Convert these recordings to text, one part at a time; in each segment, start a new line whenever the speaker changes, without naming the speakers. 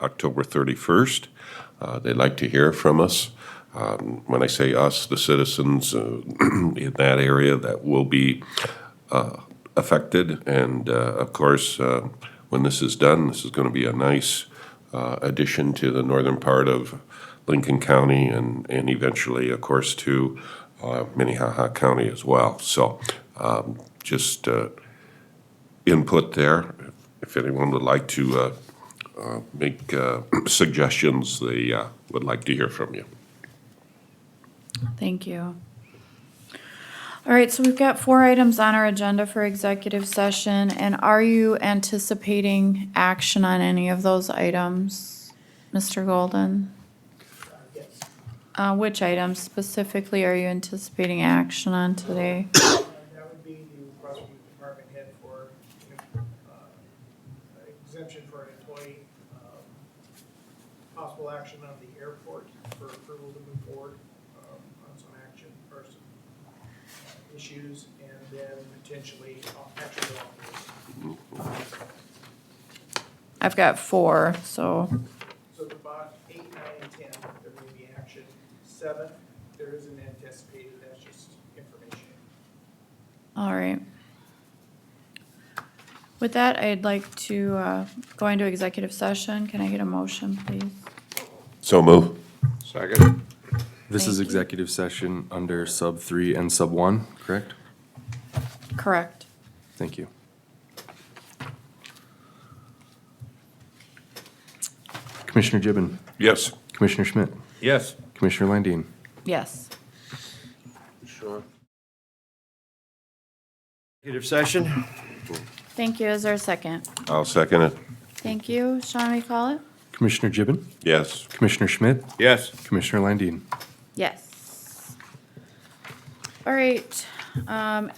October 31st. Uh, They'd like to hear from us. Um, When I say us, the citizens uh, in that area that will be uh, affected. And uh, of course, uh, when this is done, this is going to be a nice uh, addition to the northern part of Lincoln County and, and eventually, of course, to uh, Minnehaha County as well. So um, just uh, input there. If anyone would like to uh, uh, make uh, suggestions, they uh, would like to hear from you.
Thank you. All right, so we've got four items on our agenda for executive session, and are you anticipating action on any of those items, Mr. Golden? Uh, which items specifically are you anticipating action on today?
That would be the request from the department head for uh, exemption for an employee, um, possible action on the airport for approval to move forward um, on some action, or some uh, issues, and then potentially uh, action law.
I've got four, so,
So the bot eight, nine, and ten, there may be action. Seven, there isn't anticipated, that's just information.
all right. With that, I'd like to, uh, go into executive session. Can I get a motion, please?
So move.
Second.
This
Thank
is
you.
executive session under sub three and sub one, correct?
Correct.
Thank you. Commissioner Gibbon,
Yes.
Commissioner Schmidt,
Yes.
Commissioner Landine.
Yes.
Sure. Executive session?
Thank you. Is there a second?
I'll second it.
Thank you. Sean, we call it?
Commissioner Gibbon,
Yes.
Commissioner Schmidt,
Yes.
Commissioner Landine.
Yes. All right. Um,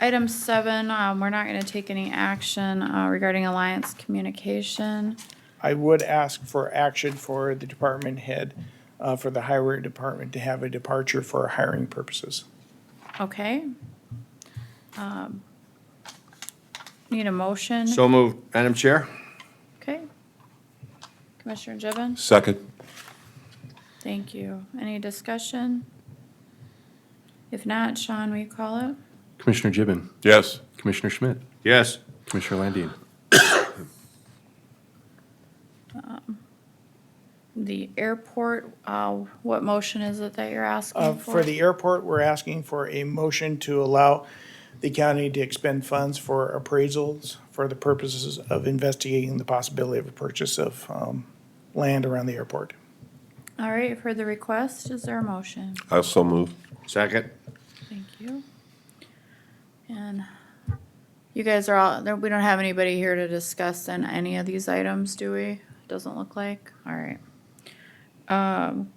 item seven, um, we're not gonna take any action, uh, regarding Alliance Communication.
I would ask for action for the department head, uh, for the highway department to have a departure for hiring purposes.
Okay? Um, Need a motion?
So moved. Madam Chair?
Okay. Commissioner Gibbon,
Second.
thank you. Any discussion? If not, Sean, we call it?
Commissioner Gibbon,
Yes.
Commissioner Schmidt,
Yes.
Commissioner Landine.
The airport, uh, what motion is it that you're
Uh,
asking for?
For the airport, we're asking for a motion to allow the county to expend funds for appraisals for the purposes of investigating the possibility of a purchase of um, land around the airport.
All right, you've heard the request. Is there a motion?
I'll so move.
Second?
Thank you. And you guys are all, there- we don't have anybody here to discuss on any of these items, do we? Doesn't look like. All right. Um,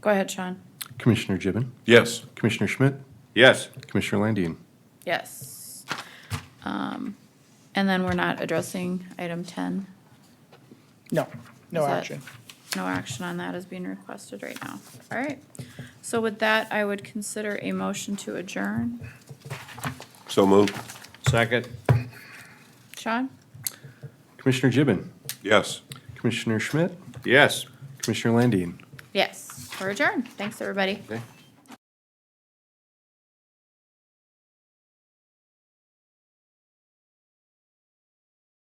Go ahead, Sean.
Commissioner Gibbon,
Yes.
Commissioner Schmidt,
Yes.
Commissioner Landine.
Yes. Um, And then we're not addressing item 10.
No, no
Is that-
action.
No action on that is being requested right now. All right. So with that, I would consider a motion to adjourn.
So move.
Second?
Sean?
Commissioner Gibbon,
Yes.
Commissioner Schmidt,
Yes.
Commissioner Landine.
Yes, we're adjourned. Thanks, everybody.
Okay.